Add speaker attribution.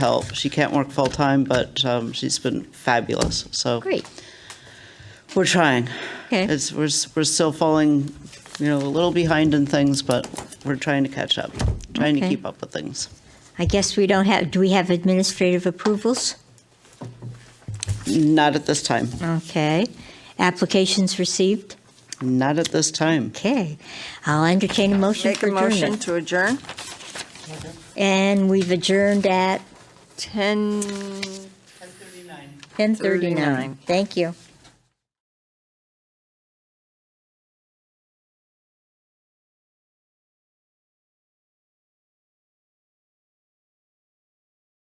Speaker 1: help. She can't work full time, but um, she's been fabulous. So
Speaker 2: Great.
Speaker 1: we're trying.
Speaker 2: Okay.
Speaker 1: It's we're s- we're still falling, you know, a little behind in things, but we're trying to catch up, trying to
Speaker 2: Okay.
Speaker 1: keep up with things.
Speaker 2: I guess we don't have, do we have administrative approvals?
Speaker 1: Not at this time.
Speaker 2: Okay. Applications received?
Speaker 1: Not at this time.
Speaker 2: Okay. I'll entertain a motion
Speaker 3: Make
Speaker 2: for
Speaker 3: a motion
Speaker 2: adjournment.
Speaker 3: to adjourn.
Speaker 2: And we've adjourned at
Speaker 3: 10,
Speaker 2: 10:39.
Speaker 3: Thirty-nine.
Speaker 2: Thank you.